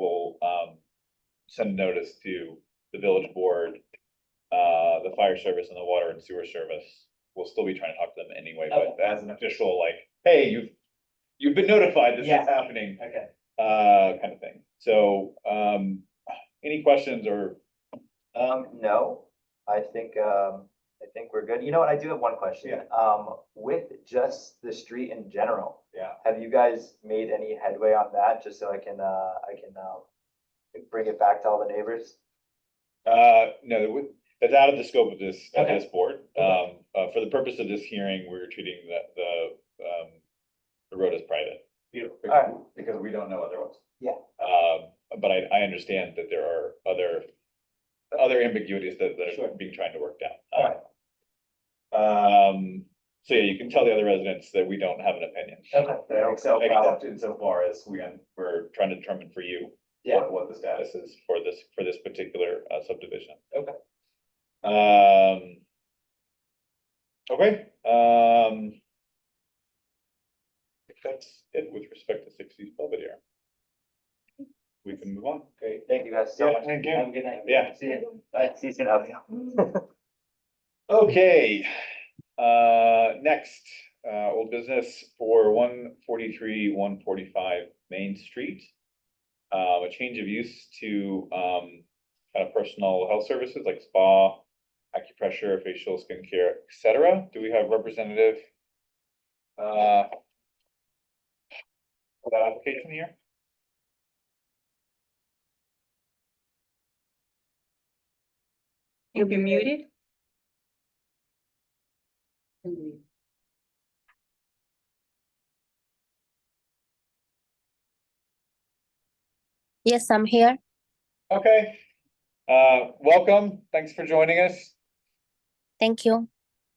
um, send a notice to the village board, uh, the fire service and the water and sewer service. We'll still be trying to talk to them anyway, but as an official, like, hey, you've, you've been notified this is Yeah. happening, Okay. uh, kind of thing. So, um, any questions or, Um, no, I think, um, I think we're good. You know what? I do have one question. Yeah. Um, with just the street in general, yeah, have you guys made any headway on that? Just so I can, uh, I can, uh, bring it back to all the neighbors? Uh, no, we- that's out of the scope of this, of Okay. this board. Okay. Um, uh, for the purpose of this hearing, we're treating the, the, um, the road as private. Beautiful. Alright. Because we don't know otherwise. Um, but I, I understand that there are other, other ambiguities that, that Sure. are being tried to work All out. right. Um, so yeah, you can tell the other residents that we don't have an opinion. Okay. That So, except, except insofar as we, un- We're trying to determine for you Yeah. what, what the status. this is for this, for this particular uh, subdivision. Okay. Um. Okay, um. I think That's it with respect to sixties Belvedere. We can move on. Great. Thank you guys so Yeah, much. thank you. Have a good night. Yeah. See you. Bye. See you soon, Abigail. Okay, uh, next, uh, old business for one forty-three, one forty-five Main Street. Uh, a change of use to, um, kind of personal health services like spa, acupressure, facial, skincare, et cetera. Do we have representative? Uh. For that application here? You'll be muted. Yes, I'm here. Okay, uh, welcome. Thanks for joining us. Thank you.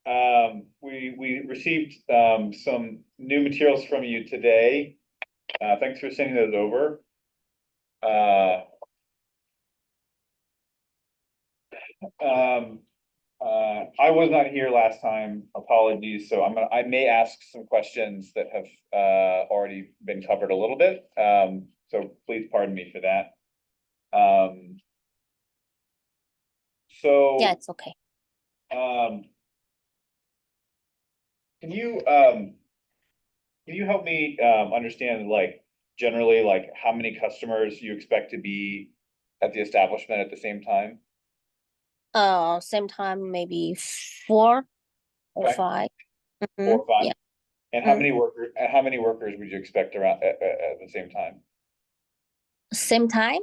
Um, we, we received, um, some new materials from you today. Uh, thanks for sending those over. Uh. Um, uh, I was not here last time, apologies, so I'm gonna, I may ask some questions that have, uh, already been covered a little bit. Um, so please pardon me for that. Um. So. Yeah, it's okay. Um. Can you, um. Can you help me, um, understand like generally, like how many customers you expect to be at the establishment at the same time? Uh, same time, maybe four or Okay. five. Four Mhm, or five? yeah. And how Mm. many workers? and how many workers would you expect around at, at, at the same time? Same time,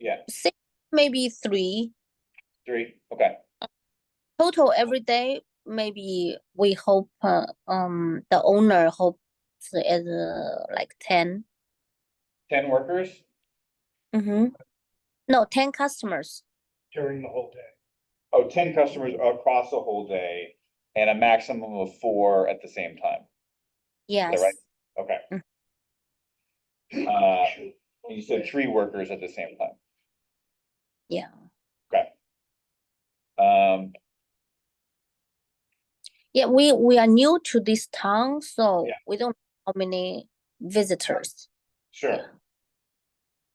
Yeah, six, maybe three. three, okay, Total every day, maybe we hope, uh, um, the owner hopes is uh, like ten. ten workers? Mm-hmm. No, ten customers. during the whole day. Oh, ten customers across the whole day and a maximum of four at the same time, Yes. right? okay? Mm. Uh, and you said three workers at the same time? Yeah. Um, Yeah, we, we are new to this town, so Yeah. we don't know how many visitors. sure.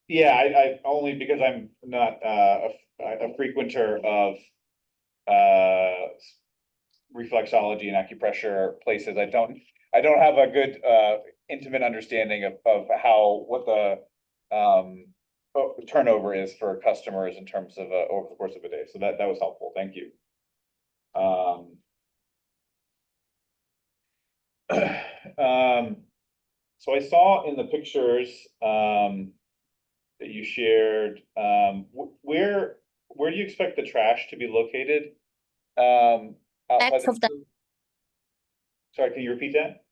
Yeah, I, I, only because I'm not, uh, a, a frequenter of, uh, reflexology and acupressure places. I don't, I don't have a good, uh, intimate understanding of, of how, what the, um, oh, turnover is for customers in terms of, uh, over the course of a day. So that, that was helpful. Thank you. Um. Um, so I saw in the pictures, um, that you shared, um, wh- where, where do you expect the trash to be located? Um. outside Back of Sorry, can you repeat that?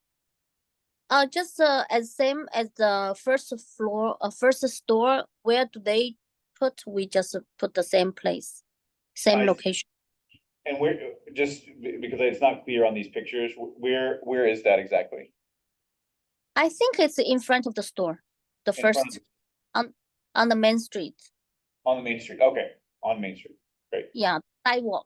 Uh, just uh, as same as the first floor, uh, first store, where do they put? We just put the same place, same I see. location. And where, just be- because it's not clear on these pictures, wh- where, where is that exactly? I think it's in front of the store, the In front first of the- on the main street. On the main street, okay, on Main Street, Yeah, sidewalk.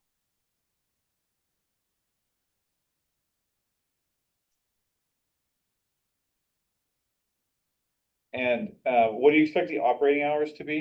and, uh, what do you expect the operating hours to be?